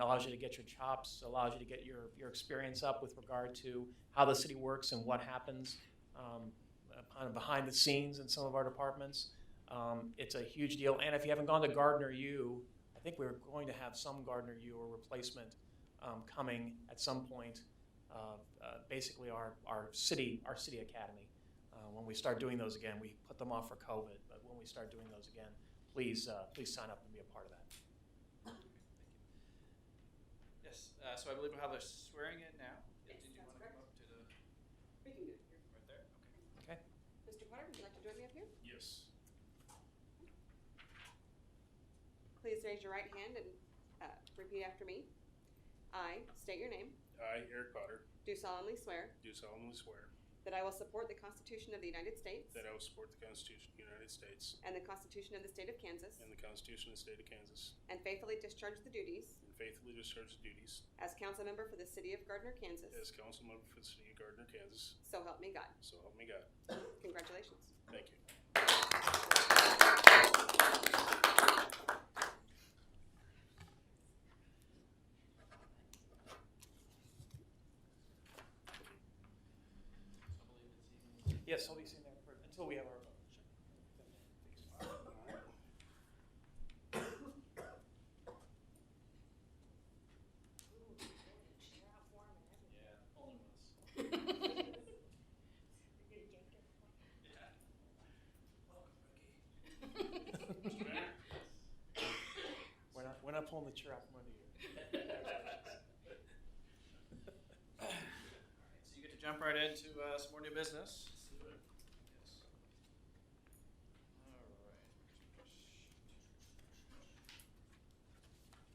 allows you to get your chops, allows you to get your, your experience up with regard to how the city works and what happens um, uh, kind of behind the scenes in some of our departments. Um, It's a huge deal, and if you haven't gone to Gardner U, I think we're going to have some Gardner U or replacement um, coming at some point. uh, uh, Basically, our, our city, our city academy. Uh, When we start doing those again, we put them off for COVID, but when we start doing those again, please, uh, please sign up and be a part of that. Yes, uh, so I believe we'll have her swearing in now. Yes, Did you that's want to come up to the, We can do it here. right there? Okay. Mr. Potter, would you like to join me up here? Yes. Please raise your right hand and uh, repeat after me. I state your name, I, Eric Potter, do solemnly swear do solemnly swear that I will support the Constitution of the United States that I will support the Constitution of the United States and the Constitution of the State of Kansas, and the Constitution of the State of Kansas, and faithfully discharge the duties and faithfully discharge the duties as council member for the City of Gardner, Kansas. as council member for the City of Gardner, Kansas. So help me God. So help me God. Congratulations. Thank you. I believe it's even. Yes, I'll be sitting there for- until we have our vote. Yeah, only once. Yeah. Welcome, rookie. We're not, we're not pulling the chair out from under you. All right, so you get to jump right into uh, some more new business.